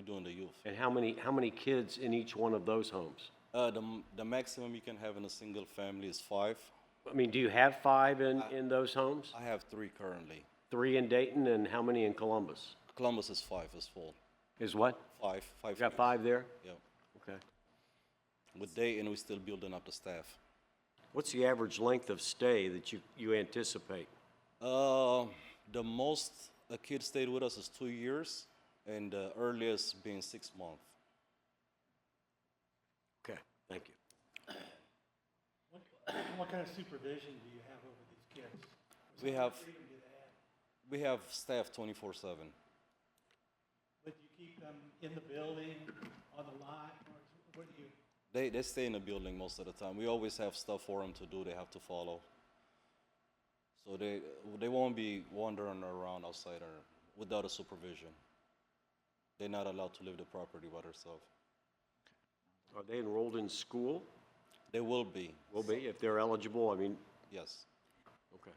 doing the youth. And how many, how many kids in each one of those homes? Uh, the, m- the maximum you can have in a single family is five. I mean, do you have five in, in those homes? I have three currently. Three in Dayton and how many in Columbus? Columbus is five, is full. Is what? Five, five. You got kids. five there? Yeah. Okay. With Dayton, we're still building up the staff. What's the average length of stay that you, you anticipate? Uh, the most a kid stayed with us is two years, and the earliest being six months. Okay, thank you. What what kind of supervision do you have over these kids? We have we have staff 24/7. But do you keep them in the building, on the lot, or what do you? They they stay in the building most of the time. We always have stuff for them to do. They have to follow. So they they won't be wandering around outside or without a supervision. They're not allowed to leave the property by themselves. Are they enrolled in school? They will be, Will be, if they're eligible, I mean, yes. okay.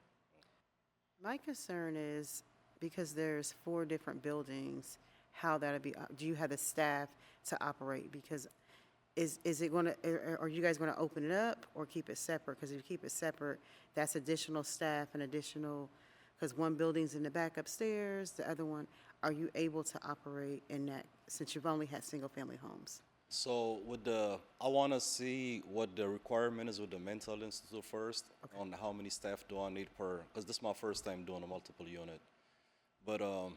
My concern is, because there's four different buildings, how that'll be, op- do you have the staff to operate? Because is, is it gonna, are, are you guys gonna open it up or keep it separate? Because if you keep it separate, that's additional staff and additional, because one building's in the back upstairs, the other one, are you able to operate in that, since you've only had single-family homes? So with the, I want to see what the requirement is with the mental institute first on how many staff do I need per, because this is my first time doing a multiple unit. But um,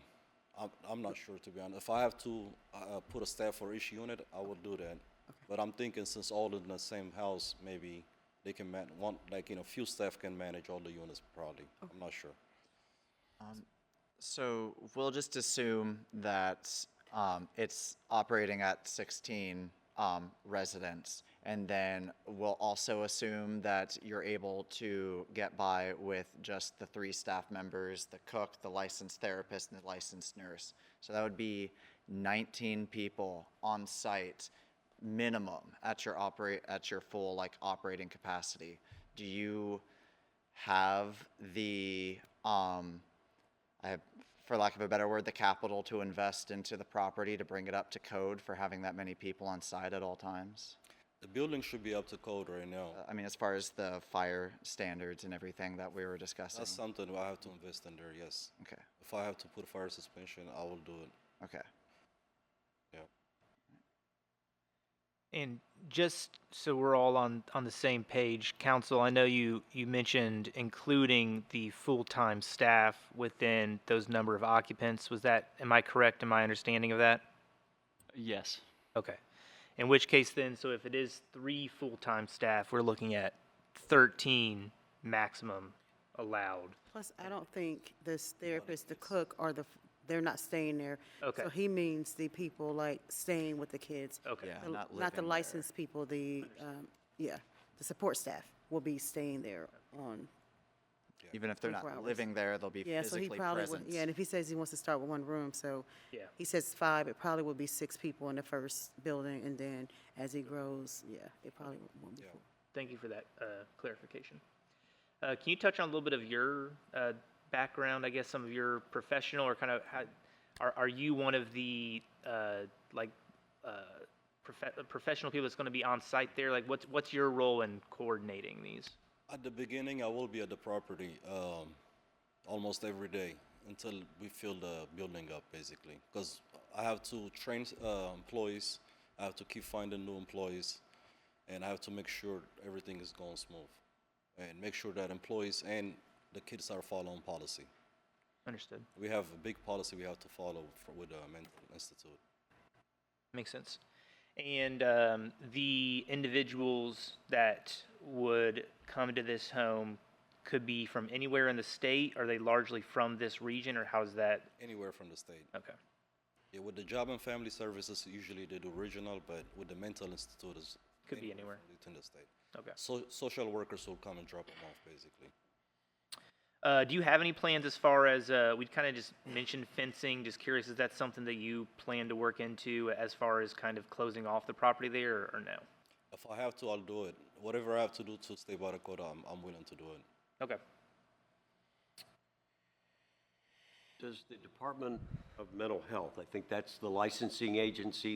I'm, I'm not sure to be honest. If I have to uh, put a staff for each unit, I will do that. But I'm thinking since all in the same house, maybe they can man, one, like, you know, few staff can manage all the units probably. I'm not sure. So we'll just assume that um, it's operating at 16 um, residents. And then we'll also assume that you're able to get by with just the three staff members the cook, the licensed therapist, and the licensed nurse. So that would be 19 people on site minimum at your operate at your full like operating capacity. Do you have the um, I, for lack of a better word, the capital to invest into the property to bring it up to code for having that many people on site at all times? Uh, The building should be up to code right now. I mean, as far as the fire standards and everything that we were discussing. That's something I have to invest in there, yes. Okay, If I have to put fire suspension, I will do it. okay. Yeah. And just so we're all on, on the same page, council, I know you, you mentioned including the full-time staff within those number of occupants. Was that, am I correct in my understanding of that? Yes. Okay. In which case then, so if it is three full-time staff, we're looking at thirteen maximum allowed. Plus, I don't think this therapist, the cook, or the, f- they're not staying there. Okay. So he means the people like staying with the kids. Okay. Yeah. The- Uh, not Not the living there. licensed people, the, um, yeah, the support staff will be staying there on. Even if they're 24 not hours. living there, they'll be Yeah, so he physically probably present. wouldn't, yeah, and if he says he wants to start with one room, so. Yeah. He says five, it probably would be six people in the first building, and then as he grows, yeah, it probably won't be full. Thank you for that uh, clarification. Uh, can you touch on a little bit of your uh, background? I guess some of your professional or kind of how, are are you one of the uh, like uh, profe- uh, professional people that's going to be on site there? Like, what's what's your role in coordinating these? At the beginning, I will be at the property um, almost every day until we fill the building up, basically. Because I have to train uh, employees, I have to keep finding new employees, and I have to make sure everything is going smooth, and make sure that employees and the kids are following policy. Understood. We have a big policy we have to follow for, with the mental institute. Makes sense. And um, the individuals that would come to this home could be from anywhere in the state. Are they largely from this region, or how's that? Anywhere from the state. Okay. Yeah, with the job and family services, usually they do regional, but with the mental institute, is Could be anywhere. within the state. Okay. So, social workers will come and drop them off, basically. Uh, do you have any plans as far as uh, we kind of just mentioned fencing? Just curious, is that something that you plan to work into as far as kind of closing off the property there, or, or no? If I have to, I'll do it. Whatever I have to do to stay by the quota, I'm, I'm willing to do it. Okay. Does the Department of Mental Health, I think that's the licensing agency